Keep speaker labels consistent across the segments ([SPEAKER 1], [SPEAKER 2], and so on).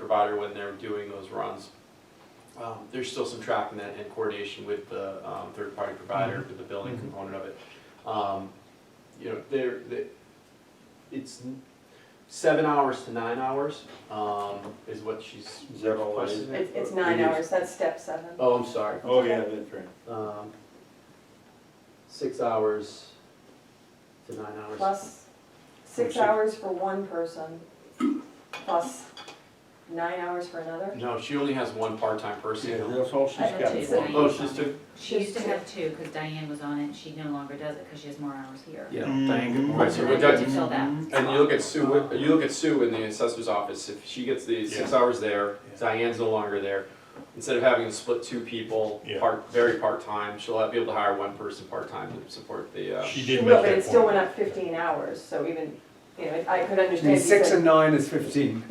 [SPEAKER 1] provider when they're doing those runs. Um, there's still some tracking that and coordination with the, um, third-party provider, with the billing
[SPEAKER 2] Mhm.
[SPEAKER 1] component of it. Um, you know, there, the- it's n- seven hours to nine hours, um, is what she's
[SPEAKER 3] Is that all it is?
[SPEAKER 1] requesting.
[SPEAKER 4] It's, it's nine hours, that's step seven.
[SPEAKER 1] Oh, I'm sorry,
[SPEAKER 3] Oh, yeah, that's right.
[SPEAKER 1] um, six hours to nine hours.
[SPEAKER 4] Plus six
[SPEAKER 1] Sure.
[SPEAKER 4] hours for one person, plus nine hours for another.
[SPEAKER 1] No, she only has one part-time person.
[SPEAKER 3] Yeah, that's all she's
[SPEAKER 5] I have two.
[SPEAKER 3] got.
[SPEAKER 1] Oh, she's took,
[SPEAKER 5] She used to have two, because Diane was on it, she no longer does it, because she has more hours here.
[SPEAKER 1] yeah.
[SPEAKER 5] Right,
[SPEAKER 1] Right, so
[SPEAKER 5] so
[SPEAKER 1] we
[SPEAKER 5] I
[SPEAKER 1] got- Mm-hmm.
[SPEAKER 5] need to fill that.
[SPEAKER 1] And you look at Sue, you look at Sue in the assessor's office, if she gets the six hours there, Diane's no longer there. Instead of having to split two people,
[SPEAKER 2] Yeah.
[SPEAKER 1] part, very part-time, she'll be able to hire one person part-time to support the, uh,
[SPEAKER 2] She did
[SPEAKER 4] Well,
[SPEAKER 2] make
[SPEAKER 4] but it
[SPEAKER 2] that
[SPEAKER 4] still
[SPEAKER 2] point.
[SPEAKER 4] went up fifteen hours, so even, you know, I could
[SPEAKER 6] I mean,
[SPEAKER 4] understand.
[SPEAKER 6] six
[SPEAKER 4] because-
[SPEAKER 6] and nine is fifteen.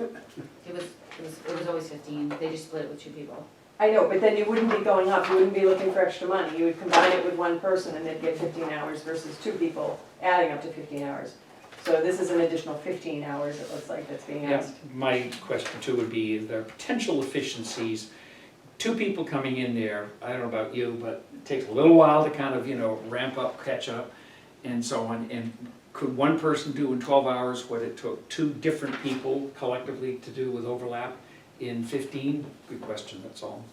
[SPEAKER 5] It was, it was, it was always fifteen, they just split it with two people.
[SPEAKER 4] I know, but then you wouldn't be going up, you wouldn't be looking for extra money. You would combine it with one person and they'd get fifteen hours versus two people adding up to fifteen hours. So this is an additional fifteen hours, it looks like, that's being
[SPEAKER 7] Yeah,
[SPEAKER 4] asked.
[SPEAKER 7] my question too would be, is there potential efficiencies? Two people coming in there, I don't know about you, but it takes a little while to kind of, you know, ramp up, catch up and so on. And could one person do in twelve hours what it took two different people collectively to do with overlap in fifteen? Good question, that's all.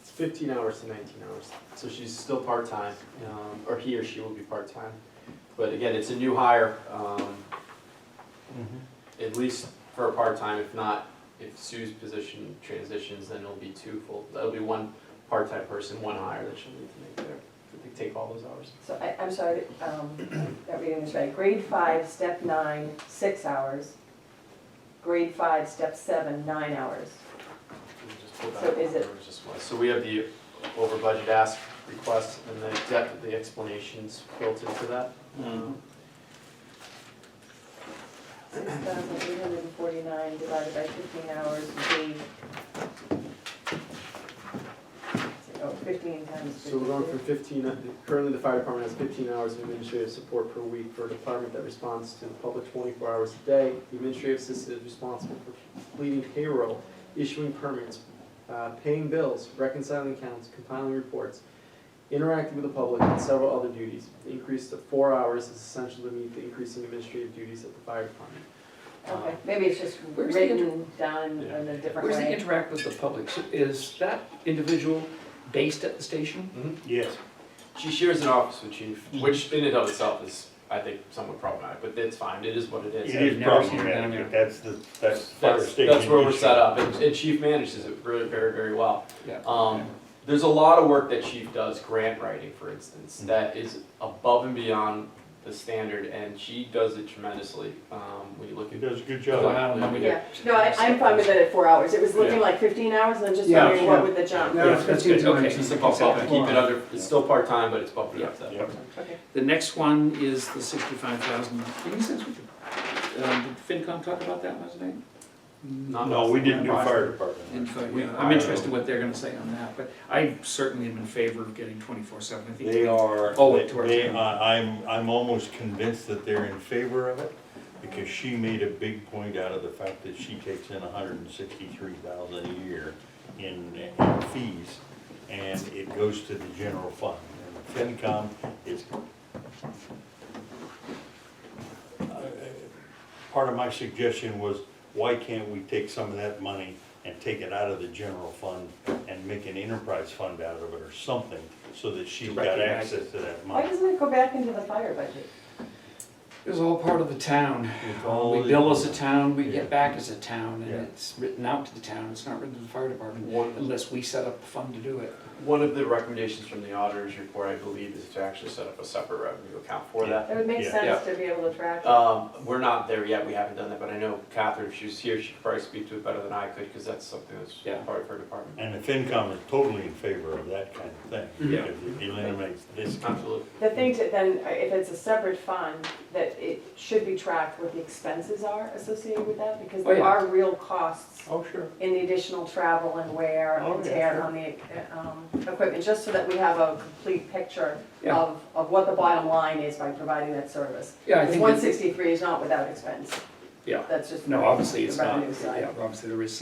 [SPEAKER 1] It's fifteen hours to nineteen hours, so she's still part-time, um, or he or she will be part-time. But again, it's a new hire, um, at least for a part-time, if not, if Sue's position transitions, then it'll be two full, that'll be one part-time person, one hire that she'll need to make there, to take all those hours.
[SPEAKER 4] So I, I'm sorry, um, that reading is right. Grade five, step nine, six hours. Grade five, step seven, nine hours.
[SPEAKER 1] We just pulled
[SPEAKER 4] So
[SPEAKER 1] out
[SPEAKER 4] is it-
[SPEAKER 1] whatever just was. So we have the over budget ask request and the depth, the explanations built into that.
[SPEAKER 2] Mm-hmm.
[SPEAKER 1] Um,
[SPEAKER 4] Mm-hmm. Six thousand eight hundred and forty-nine divided by fifteen hours would be. Oh, fifteen times
[SPEAKER 1] So we're going from
[SPEAKER 4] fifty-two.
[SPEAKER 1] fifteen, currently the fire department has fifteen hours of administrative support per week for a department that responds to the public twenty-four hours a day. The administrative assistant is responsible for completing payroll, issuing permits, uh, paying bills, reconciling accounts, compiling reports, interacting with the public, and several other duties. The Increase to four hours is essential to meet the increasing administrative duties of the fire department.
[SPEAKER 4] Okay, maybe it's just
[SPEAKER 7] Where's the inter-
[SPEAKER 4] written down
[SPEAKER 1] Yeah.
[SPEAKER 4] in a different
[SPEAKER 7] Where's the
[SPEAKER 4] way.
[SPEAKER 7] interact with the public? So Is that individual based at the station?
[SPEAKER 3] Yes.
[SPEAKER 1] Mm-hmm. She shares an office with chief, which in and of itself is, I think, somewhat problematic, but it's fine, it is what it
[SPEAKER 7] It
[SPEAKER 1] is.
[SPEAKER 7] Yeah, is I've never seen it down there.
[SPEAKER 2] problematic, that's the, that's the fire
[SPEAKER 1] That's,
[SPEAKER 2] station.
[SPEAKER 1] that's where we're
[SPEAKER 2] issue.
[SPEAKER 1] set up, and, and chief manages it really very, very well.
[SPEAKER 7] Yeah.
[SPEAKER 1] Um, there's a lot of work that chief does, grant writing, for instance,
[SPEAKER 2] Mhm.
[SPEAKER 1] that is above and beyond the standard, and she does it tremendously. Um, when you look
[SPEAKER 2] He
[SPEAKER 1] at,
[SPEAKER 2] does a good
[SPEAKER 7] Well,
[SPEAKER 2] job.
[SPEAKER 7] I don't know. We
[SPEAKER 4] Yeah,
[SPEAKER 7] did-
[SPEAKER 4] no, I, I'm fine with it at four hours. It was looking
[SPEAKER 1] Yeah.
[SPEAKER 4] like fifteen hours and I'm just
[SPEAKER 6] Yeah,
[SPEAKER 4] wondering what
[SPEAKER 6] yeah.
[SPEAKER 4] would the jump.
[SPEAKER 6] No, it's
[SPEAKER 7] Yeah, that's
[SPEAKER 6] 15
[SPEAKER 7] good.
[SPEAKER 6] to
[SPEAKER 7] Okay.
[SPEAKER 6] 19.
[SPEAKER 1] it's just above, keep it under, it's still part-time, but it's bumped
[SPEAKER 7] Yeah.
[SPEAKER 1] up to that.
[SPEAKER 2] Yep.
[SPEAKER 4] Okay.
[SPEAKER 7] The next one is the sixty-five thousand, any sense we could, um, did FinCom talk about that last night?
[SPEAKER 1] Not
[SPEAKER 2] No,
[SPEAKER 1] less
[SPEAKER 2] we
[SPEAKER 1] than
[SPEAKER 2] didn't do
[SPEAKER 1] five.
[SPEAKER 2] fire department.
[SPEAKER 7] And so,
[SPEAKER 1] We-
[SPEAKER 7] yeah, I'm interested what they're gonna say on that, but I certainly am in favor of getting twenty-four seven, I think.
[SPEAKER 2] They are,
[SPEAKER 7] Oh, it
[SPEAKER 2] they-
[SPEAKER 7] towards
[SPEAKER 2] they,
[SPEAKER 7] him.
[SPEAKER 2] I- I'm, I'm almost convinced that they're in favor of it, because she made a big point out of the fact that she takes in hundred and sixty-three thousand a year in, in fees, and it goes to the general fund. And FinCom is part of my suggestion was, why can't we take some of that money and take it out of the general fund and make an enterprise fund out of it or something, so that she's got
[SPEAKER 7] Recognize it.
[SPEAKER 2] access to that
[SPEAKER 4] Why
[SPEAKER 2] money?
[SPEAKER 4] doesn't it go back into the fire budget?
[SPEAKER 7] It's all part of the town.
[SPEAKER 2] It's all-
[SPEAKER 7] We bill as a town, we
[SPEAKER 2] Yeah.
[SPEAKER 7] get back as a town, and
[SPEAKER 2] Yeah.
[SPEAKER 7] it's written out to the town, it's not written to the fire department,
[SPEAKER 1] One-
[SPEAKER 7] unless we set up a fund to do it.
[SPEAKER 1] One of the recommendations from the auditor's report, I believe, is to actually set up a separate revenue account for that.
[SPEAKER 4] It would make
[SPEAKER 2] Yeah.
[SPEAKER 4] sense to be able to track. it.
[SPEAKER 1] Um, we're not there yet, we haven't done that, but I know Catherine, if she was here, she could probably speak to it better than I could, because that's something
[SPEAKER 7] Yeah.
[SPEAKER 1] that's part of her department.
[SPEAKER 2] And the FinCom is totally in favor of that kind of thing,
[SPEAKER 7] Yeah.
[SPEAKER 2] because it eliminates this.
[SPEAKER 1] Absolutely.
[SPEAKER 4] The thing to, then, uh, if it's a separate fund, that it should be tracked what the expenses are associated with that, because
[SPEAKER 7] Oh,
[SPEAKER 4] there
[SPEAKER 7] yeah.
[SPEAKER 4] are real costs
[SPEAKER 2] Oh, sure.
[SPEAKER 4] in the additional travel and wear
[SPEAKER 2] Oh, yeah,
[SPEAKER 4] and tear
[SPEAKER 2] sure.
[SPEAKER 4] on the, uh, um, equipment, just so that we have a complete picture
[SPEAKER 7] Yeah.
[SPEAKER 4] of, of what the bottom line is by providing that service.
[SPEAKER 7] Yeah, I
[SPEAKER 4] Because
[SPEAKER 7] think,
[SPEAKER 4] one
[SPEAKER 7] that-
[SPEAKER 4] sixty-three is not without expense,
[SPEAKER 7] yeah,
[SPEAKER 4] that's just.
[SPEAKER 7] no, obviously it's
[SPEAKER 4] the
[SPEAKER 7] not,
[SPEAKER 4] revenue side.
[SPEAKER 7] yeah, obviously there is